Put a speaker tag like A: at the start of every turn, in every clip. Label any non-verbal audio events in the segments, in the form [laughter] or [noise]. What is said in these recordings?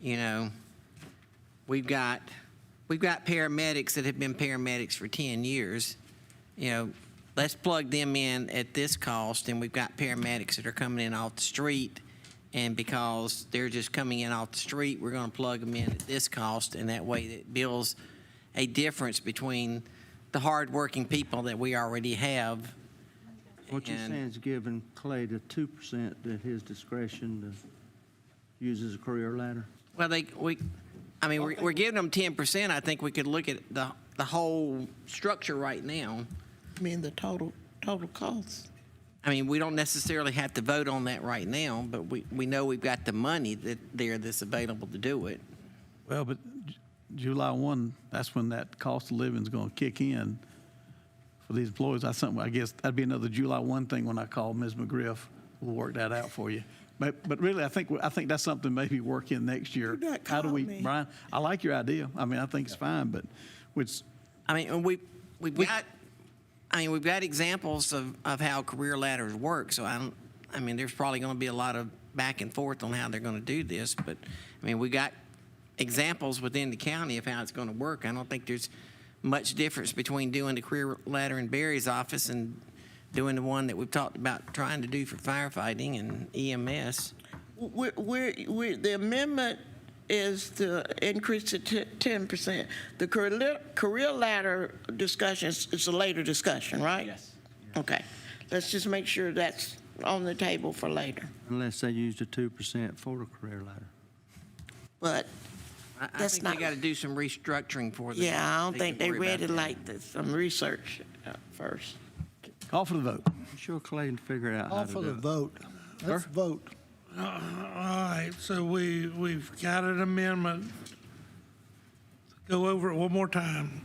A: You know, we've got, we've got paramedics that have been paramedics for 10 years. You know, let's plug them in at this cost, and we've got paramedics that are coming in off the street. And because they're just coming in off the street, we're going to plug them in at this cost, and that way it builds a difference between the hardworking people that we already have.
B: What you're
A: and-
B: saying is giving Clay the two percent at his discretion to use as a career ladder?
A: Well, they, we, I mean, we're, we're giving them ten percent. I think we could look at the, the whole structure right now.
C: I mean, the total, total cost.
A: I mean, we don't necessarily have to vote on that right now, but we, we know we've got the money that there that's available to do it.
D: Well, but J- July 1, that's when that cost of living's going to kick in for these employees. That's something, I guess, that'd be another July 1 thing when I call Ms. McGriff. We'll work that out for you. But, but really, I think, I think that's something maybe work in next year.
C: Do not
D: How do
C: call
D: we,
C: me.
D: Brian, I like your idea. I mean, I think it's fine, but which,
A: I mean, and we, we've got, I mean, we've got examples of, of how career ladders work, so I don't, I mean, there's probably gonna be a lot of back and forth on how they're gonna do this, but, I mean, we got examples within the county of how it's gonna work. I don't think there's much difference between doing the career ladder in Barry's office and doing the one that we've talked about trying to do for firefighting and E EMS.
C: We're, we're, we're, the amendment is to increase to ten percent. The career, career ladder discussion is, is a later discussion, right? Yes. Okay, let's just make sure that's on the table for later.
B: Unless they use the two percent for the career ladder.
C: But,
A: I, I
C: That's
A: think they
C: not-
A: gotta do some restructuring for this.
C: yeah, I don't think
A: can
C: they
A: worry about
C: read it
A: that.
C: like this, some research uh, first.
D: call for the vote.
B: I'm sure Clay can figure out how
E: Call
B: to
E: for
B: do it.
E: the vote. Let's vote.
F: Uh, All right, so we, we've got an amendment. Go over it one more time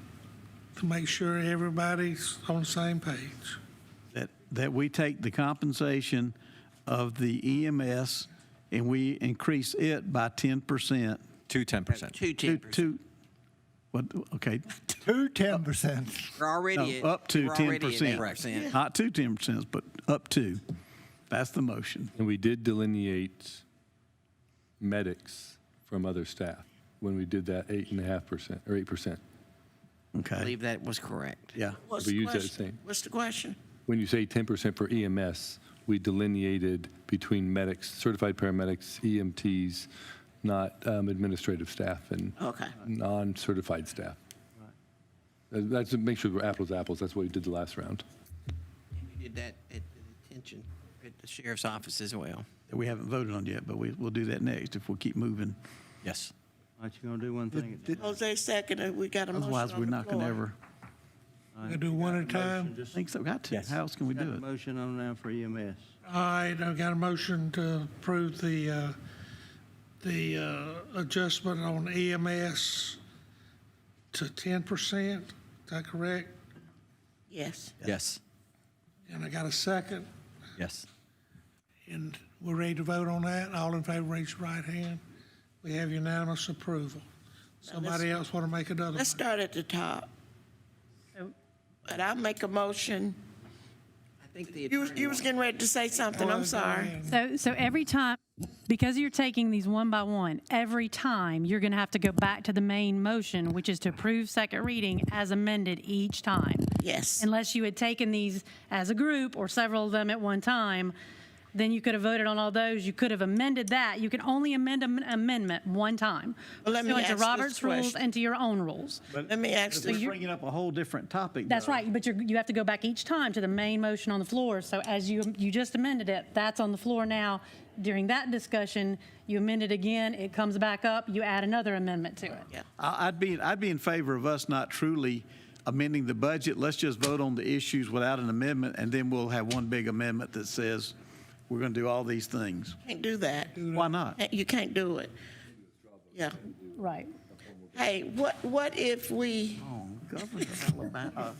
F: to make sure everybody's on the same page.
D: that, that we take the compensation of the EMS and we increase it by 10%.
G: To 10%.
A: Two
D: To-
A: ten percent.
D: To, what, okay,
E: Two ten percent.
A: We're already at.
D: no, up to
A: we're already at
D: 10%.
A: 8%.
D: Not to 10%, but up to. That's the motion.
H: And we did delineate medics from other staff when we did that eight and a half percent or eight percent.
A: I
D: Okay,
A: believe that was correct.
D: yeah.
C: What's
H: We
C: the
H: use that
C: question?
H: same.
C: What's the question?
H: When you say ten percent for EMS, we delineated between medics, certified paramedics, EMTs, not um, administrative staff and
C: Okay.
H: non-certified staff. Uh, That's, make sure we're apples to apples. That's what we did the last round.
A: We did that at the detention, at the sheriff's office as well.
D: that We haven't voted on yet, but we, we'll do that next if we keep moving.
G: Yes.
B: Aren't you gonna do one thing at a time?
C: Jose seconded, we got a motion
D: Otherwise,
C: on
D: we're
C: the
D: not going to
C: floor.
D: ever,
F: We gonna do one at a time.
D: I think so, got to.
G: Yes.
D: How else can we
B: Got
D: do
B: a
D: it?
B: motion on now for E EMS.
F: All right, I've got a motion to approve the, uh, the uh, adjustment on EMS to 10%. Is that correct?
C: Yes.
G: Yes.
F: And I got a second,
G: Yes.
F: and we're ready to vote on that. All in favor, raise your right hand. We have unanimous approval. Somebody else want to make another?
C: Let's
F: motion?
C: start at the top. But I'll make a motion.
A: I think the
C: You, you was getting ready to say something,
D: Oh,
C: I'm sorry.
I: So, so every time, because you're taking these one by one, every time, you're going to have to go back to the main motion, which is to approve second reading as amended each time.
C: Yes.
I: Unless you had taken these as a group or several of them at one time, then you could have voted on all those. You could have amended that. You can only amend an amendment one time.
C: Well, let me
I: pursuant
C: ask this
I: to Robert's rules
C: question.
I: and to your own rules.
C: Let me ask
D: We're
C: this.
D: bringing up a whole different topic.
I: That's
D: though.
I: right, but you're, you have to go back each time to the main motion on the floor. So as you, you just amended it, that's on the floor now. During that discussion, you amend it again, it comes back up, you add another amendment to it.
D: I- I'd be, I'd be in favor of us not truly amending the budget. Let's just vote on the issues without an amendment, and then we'll have one big amendment that says, we're going to do all these things.
C: Can't do that.
D: Why not?
C: You can't do it. Yeah.
I: Right.
C: Hey, what, what if we,
B: Governor of
D: [laughs]
B: Alabama,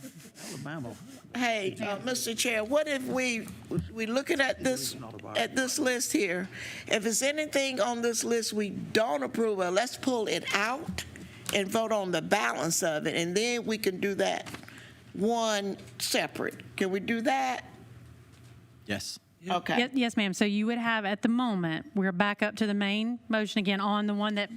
B: Alabama.
C: hey, uh, Mr. Chair, what if we, we looking at this, at this list here? If it's anything on this list we don't approve of, let's pull it out and vote on the balance of it, and then we can do that one separate. Can we do that?
G: Yes.
C: Okay.
I: Yes, ma'am. So you would have, at the moment, we're back up to the main motion again on the one that